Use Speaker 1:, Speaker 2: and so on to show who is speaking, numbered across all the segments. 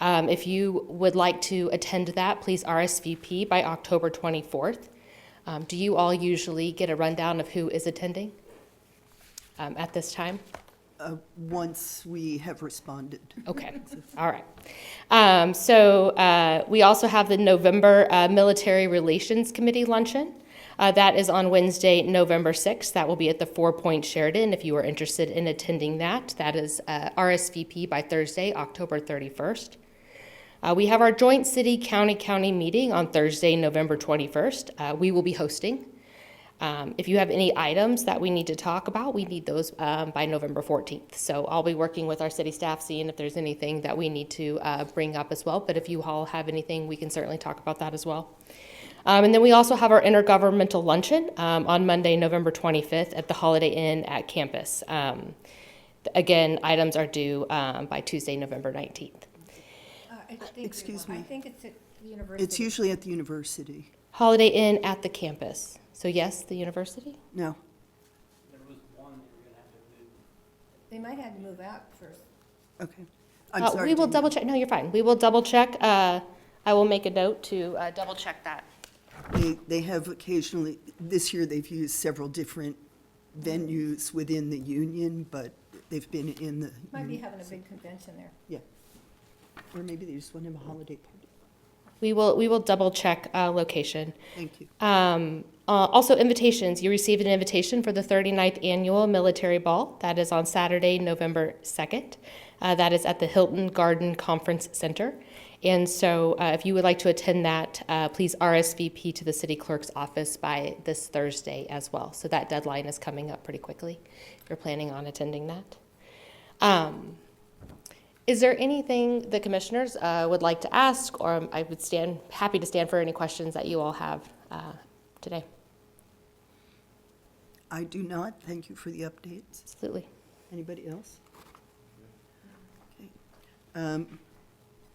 Speaker 1: Um, if you would like to attend that, please RSVP by October 24th. Um, do you all usually get a rundown of who is attending um, at this time?
Speaker 2: once we have responded.
Speaker 1: Okay, all right. Um, so uh, we also have the November uh, Military Relations Committee luncheon. Uh, that is on Wednesday, November 6th. That will be at the Four Point Sheridan. If you are interested in attending that, that is uh, RSVP by Thursday, October 31st. Uh, we have our joint city county county meeting on Thursday, November 21st. Uh, we will be hosting. Um, if you have any items that we need to talk about, we need those um, by November 14th. So I'll be working with our city staff, seeing if there's anything that we need to uh, bring up as well. But if you all have anything, we can certainly talk about that as well. Um, and then we also have our intergovernmental luncheon um, on Monday, November 25th at the Holiday Inn at campus. Um, again, items are due um, by Tuesday, November 19th.
Speaker 3: Uh, I think we
Speaker 2: excuse
Speaker 3: will. I
Speaker 2: me.
Speaker 3: think it's at the university.
Speaker 2: It's usually at the university.
Speaker 1: Holiday Inn at the campus. So, yes, the university?
Speaker 2: No,
Speaker 3: They might have to move out first.
Speaker 2: okay.
Speaker 1: Uh,
Speaker 2: I'm sorry.
Speaker 1: We will
Speaker 2: Dana.
Speaker 1: double check, no, you're fine. We will double check. uh, I will make a note to uh, double check that.
Speaker 2: They, they have occasionally, this year they've used several different venues within the union, but they've been in the.
Speaker 3: Might be
Speaker 2: union,
Speaker 3: having a
Speaker 2: so-
Speaker 3: big convention there.
Speaker 2: Yeah. Or maybe they just want to have a holiday party.
Speaker 1: We will, we will double check uh, location.
Speaker 2: Thank you.
Speaker 1: Um, uh, Also, invitations. You received an invitation for the 39th Annual Military Ball. That is on Saturday, November 2nd. Uh, That is at the Hilton Garden Conference Center. And so uh, if you would like to attend that, uh, please RSVP to the city clerk's office by this Thursday as well. So that deadline is coming up pretty quickly, if you're planning on attending that. Um, Is there anything the commissioners uh, would like to ask, or I would stand, happy to stand for any questions that you all have uh, today?
Speaker 2: I do not. Thank you for the updates.
Speaker 1: Absolutely.
Speaker 2: Anybody else? Okay. Um,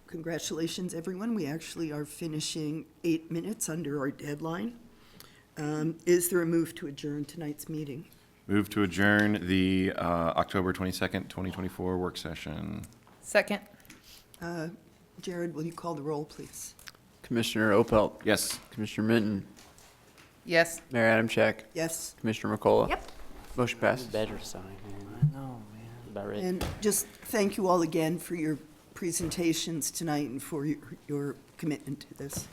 Speaker 2: Congratulations, everyone. We actually are finishing eight minutes under our deadline. Um, Is there a move to adjourn tonight's meeting?
Speaker 4: Move to adjourn the uh, October 22nd, 2024 work session.
Speaker 5: Second.
Speaker 2: Jared, will you call the roll, please?
Speaker 6: Commissioner Opelt.
Speaker 4: Yes.
Speaker 6: Commissioner Minton.
Speaker 5: Yes.
Speaker 6: Mayor Adamchak.
Speaker 2: Yes.
Speaker 6: Commissioner McCullough.
Speaker 5: Yep.
Speaker 6: Motion passes.
Speaker 7: Better sign, man. I know, man. About it.
Speaker 2: And just thank you all again for your presentations tonight and for your your commitment to this.